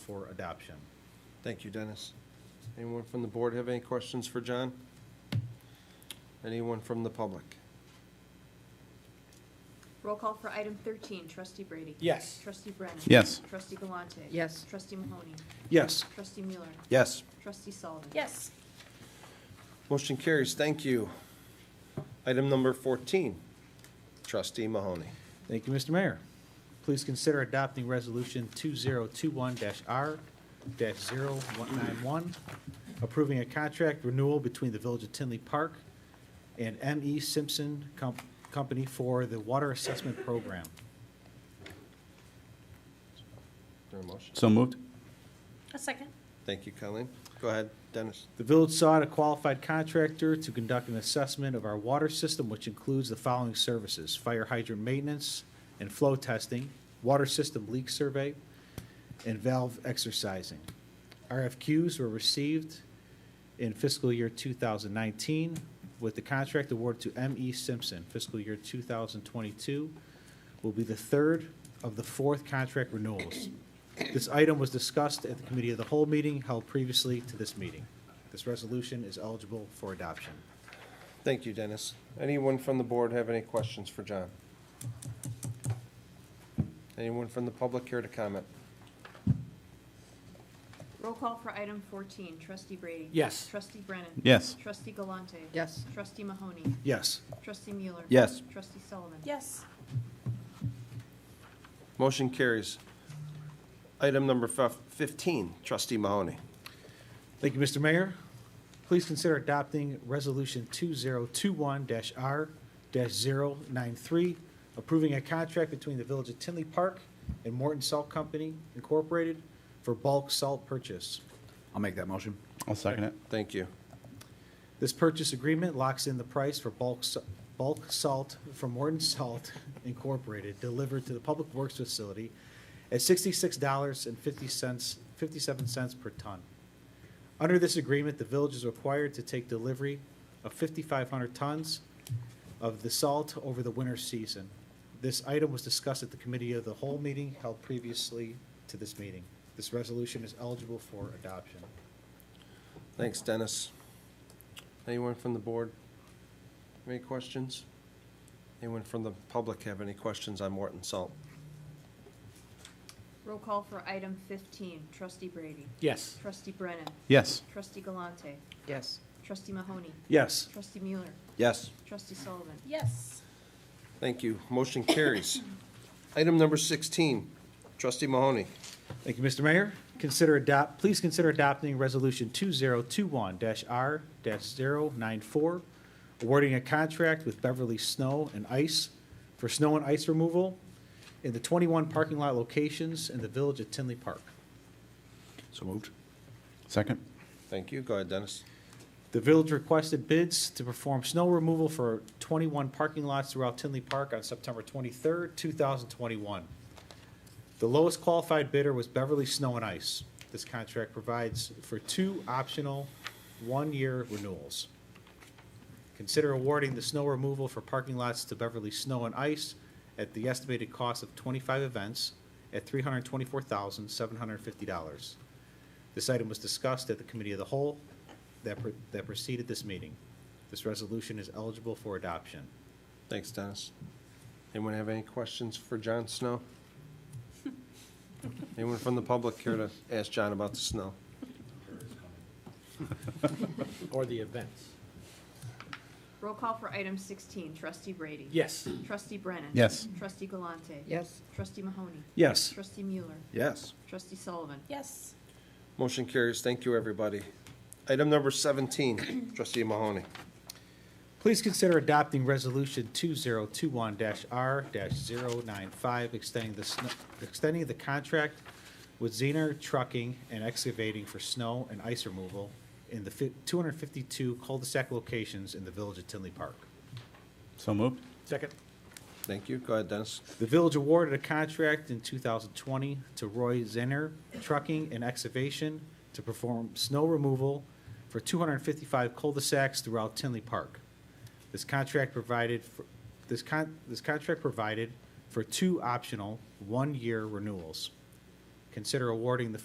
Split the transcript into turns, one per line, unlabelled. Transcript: for adoption.
Thank you, Dennis. Anyone from the board have any questions for John? Anyone from the public?
Roll call for item 13, trustee Brady.
Yes.
Trustee Brennan.
Yes.
Trustee Galante.
Yes.
Trustee Mahoney.
Yes.
Trustee Mueller.
Yes.
Trustee Sullivan.
Yes.
Motion carries. Thank you. Item number 14, trustee Mahoney.
Thank you, Mr. Mayor. Please consider adopting Resolution 2021-R-0191, approving a contract renewal between the Village of Tinley Park and M.E. Simpson Com- Company for the Water Assessment Program.
Is there a motion?
So moved?
A second.
Thank you, Colleen. Go ahead, Dennis.
The village sought a qualified contractor to conduct an assessment of our water system, which includes the following services: fire hydrant maintenance and flow testing, water system leak survey, and valve exercising. RFQs were received in fiscal year 2019, with the contract award to M.E. Simpson. Fiscal year 2022 will be the third of the fourth contract renewals. This item was discussed at the Committee of the Whole meeting held previously to this meeting. This resolution is eligible for adoption.
Thank you, Dennis. Anyone from the board have any questions for John? Anyone from the public here to comment?
Roll call for item 14, trustee Brady.
Yes.
Trustee Brennan.
Yes.
Trustee Galante.
Yes.
Trustee Mahoney.
Yes.
Trustee Mueller.
Yes.
Trustee Sullivan.
Yes.
Motion carries. Item number fif- 15, trustee Mahoney.
Thank you, Mr. Mayor. Please consider adopting Resolution 2021-R-093, approving a contract between the Village of Tinley Park and Morton Salt Company Incorporated for bulk salt purchase.
I'll make that motion. I'll second it.
Thank you.
This purchase agreement locks in the price for bulk, s- bulk salt from Morton Salt Incorporated delivered to the Public Works Facility at sixty-six dollars and fifty cents, fifty-seven cents per ton. Under this agreement, the village is required to take delivery of fifty-five hundred tons of the salt over the winter season. This item was discussed at the Committee of the Whole meeting held previously to this meeting. This resolution is eligible for adoption.
Thanks, Dennis. Anyone from the board? Any questions? Anyone from the public have any questions on Morton Salt?
Roll call for item 15, trustee Brady.
Yes.
Trustee Brennan.
Yes.
Trustee Galante.
Yes.
Trustee Mahoney.
Yes.
Trustee Mueller.
Yes.
Trustee Sullivan.
Yes.
Thank you. Motion carries. Item number 16, trustee Mahoney.
Thank you, Mr. Mayor. Consider adopt, please consider adopting Resolution 2021-R-094, awarding a contract with Beverly Snow and Ice for snow and ice removal in the 21 parking lot locations in the Village of Tinley Park.
So moved? Second?
Thank you. Go ahead, Dennis.
The village requested bids to perform snow removal for 21 parking lots throughout Tinley Park on September 23rd, 2021. The lowest qualified bidder was Beverly Snow and Ice. This contract provides for two optional one-year renewals. Consider awarding the snow removal for parking lots to Beverly Snow and Ice at the estimated cost of 25 events at $324,750. This item was discussed at the Committee of the Whole that pre- that preceded this meeting. This resolution is eligible for adoption.
Thanks, Dennis. Anyone have any questions for John Snow? Anyone from the public care to ask John about the snow?
Or the events.
Roll call for item 16, trustee Brady.
Yes.
Trustee Brennan.
Yes.
Trustee Galante.
Yes.
Trustee Mahoney.
Yes.
Trustee Mueller.
Yes.
Trustee Sullivan.
Yes.
Motion carries. Thank you, everybody. Item number 17, trustee Mahoney.
Please consider adopting Resolution 2021-R-095, extending the, sn- extending the contract with Zener Trucking and Excavating for snow and ice removal in the fi- 252 cul-de-sac locations in the Village of Tinley Park.
So moved?
Second?
Thank you. Go ahead, Dennis.
The village awarded a contract in 2020 to Roy Zinner Trucking and Excavation to perform snow removal for 255 cul-de-sacs throughout Tinley Park. This contract provided, for- this con, this contract provided for two optional one-year renewals. Consider awarding the